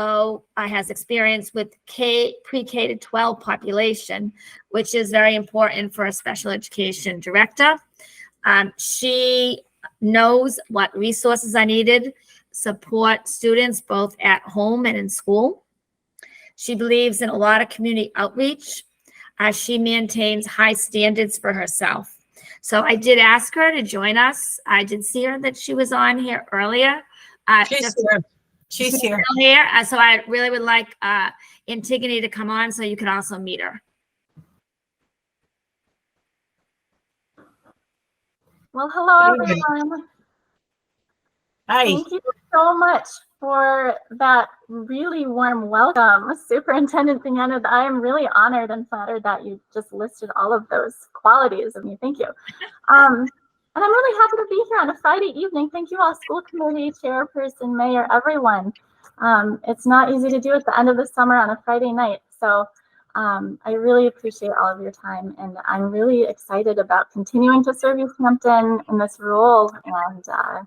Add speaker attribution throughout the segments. Speaker 1: also uh, has experience with K, pre-K to 12 population, which is very important for a special education director. Um, She knows what resources are needed, support students both at home and in school. She believes in a lot of community outreach. Uh, She maintains high standards for herself. So I did ask her to join us. I did see her that she was on here earlier. uh,
Speaker 2: She's
Speaker 1: just-
Speaker 2: here. She's here.
Speaker 1: still here, uh, so I really would like uh, Antigone to come on so you can also meet her.
Speaker 3: Well, hello
Speaker 2: Very good.
Speaker 3: everyone.
Speaker 2: Hi.
Speaker 3: Thank you so much for that really warm welcome, Superintendent Thiana. I am really honored and flattered that you just listed all of those qualities of me. Thank you. Um, and I'm really happy to be here on a Friday evening. Thank you all, school committee, chairperson, mayor, everyone. Um, it's not easy to do at the end of the summer on a Friday night. So um, I really appreciate all of your time, and I'm really excited about continuing to serve East Hampton in this role and uh,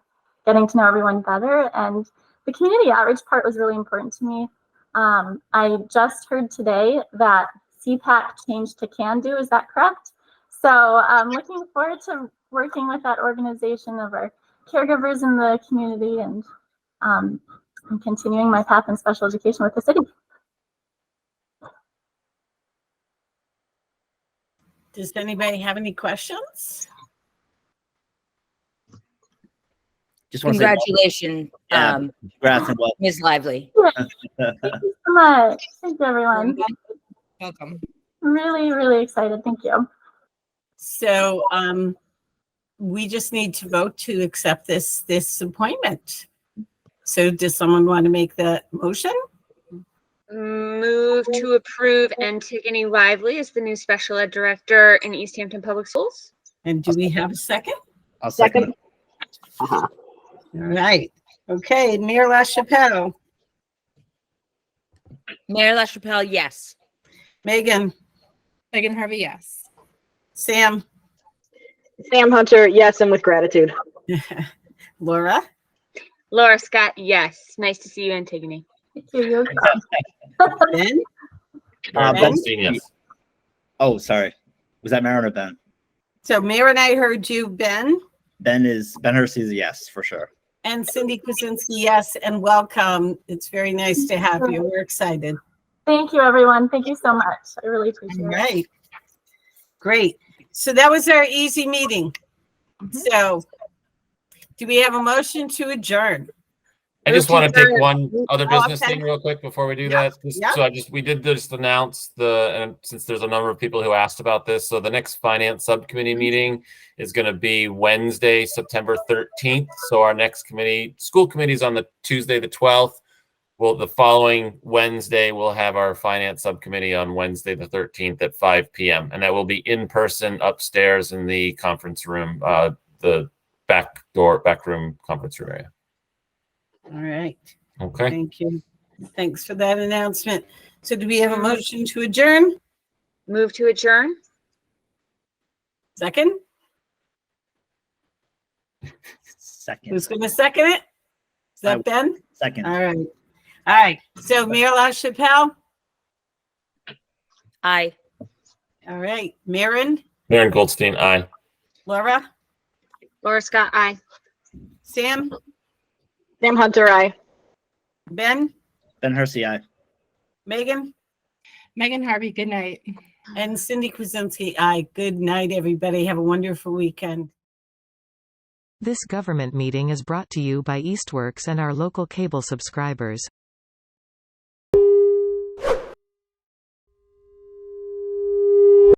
Speaker 3: getting to know everyone better. And the community outreach part was really important to me. Um, I just heard today that CPAC changed to Can Do. Is that correct? So I'm looking forward to working with that organization of our caregivers in the community and um, I'm continuing my path in special education with the city.
Speaker 2: Does anybody have any questions?
Speaker 4: Just want to say
Speaker 5: Congratulations,
Speaker 4: Yeah.
Speaker 5: um,
Speaker 4: congrats and welcome.
Speaker 5: Ms. Lively.
Speaker 3: Thank you so much. Thank you, everyone.
Speaker 5: Welcome.
Speaker 3: I'm really, really excited. Thank you.
Speaker 2: So um, we just need to vote to accept this, this appointment. So does someone want to make the motion?
Speaker 6: Move to approve Antigone Lively as the new special ed director in East Hampton Public Schools.
Speaker 2: And do we have a second?
Speaker 4: I'll second. it.
Speaker 2: All right. Okay, Mayor LaChapelle,
Speaker 5: Mayor LaChapelle, yes.
Speaker 2: Megan,
Speaker 7: Megan Harvey, yes.
Speaker 2: Sam,
Speaker 8: Sam Hunter, yes, and with gratitude.
Speaker 2: Laura,
Speaker 6: Laura Scott, yes. Nice to see you, Antigone.
Speaker 3: Thank you. You're
Speaker 2: Ben,
Speaker 4: Uh,
Speaker 2: Ben?
Speaker 4: Ben? Oh, sorry. Was that Marin or Ben?
Speaker 2: So Mayor and I heard you, Ben,
Speaker 4: Ben is Ben Hersey is a yes for sure.
Speaker 2: and Cindy Kuzinski, yes, and welcome. It's very nice to have you. We're excited.
Speaker 3: Thank you, everyone. Thank you so much. I really
Speaker 2: All
Speaker 3: appreciate it.
Speaker 2: right. Great. So that was our easy meeting. So do we have a motion to adjourn?
Speaker 9: I just
Speaker 2: Move to
Speaker 9: want to take
Speaker 2: adjourn.
Speaker 9: one other
Speaker 2: Oh,
Speaker 9: business
Speaker 2: okay.
Speaker 9: thing real quick before we do
Speaker 2: Yeah,
Speaker 9: that. Just-
Speaker 2: yeah.
Speaker 9: So I just, we did just announce the, and since there's a number of people who asked about this, so the next finance subcommittee meeting is going to be Wednesday, September 13th. So our next committee, school committee's on the Tuesday, the 12th. Well, the following Wednesday, we'll have our finance subcommittee on Wednesday, the 13th at 5 PM. And that will be in person upstairs in the conference room, uh, the back door, back room conference room area.
Speaker 2: All right.
Speaker 9: Okay.
Speaker 2: Thank you. Thanks for that announcement. So do we have a motion to adjourn?
Speaker 6: Move to adjourn.
Speaker 2: Second? Who's
Speaker 4: Second.
Speaker 2: going to second it? Is
Speaker 4: I-
Speaker 2: that Ben?
Speaker 4: Second.
Speaker 2: All right. All right. So Mayor LaChapelle?
Speaker 5: Aye.
Speaker 2: All right. Maren,
Speaker 9: Maren Goldstein, aye.
Speaker 2: Laura,
Speaker 6: Laura Scott, aye.
Speaker 2: Sam,
Speaker 8: Sam Hunter, I.
Speaker 2: Ben,
Speaker 4: Ben Hersey, I.
Speaker 2: Megan?
Speaker 7: Megan Harvey, good night.
Speaker 2: And Cindy Kuzinski, aye. Good night, everybody. Have a wonderful weekend.
Speaker 10: This government meeting is brought to you by Eastworks and our local cable subscribers.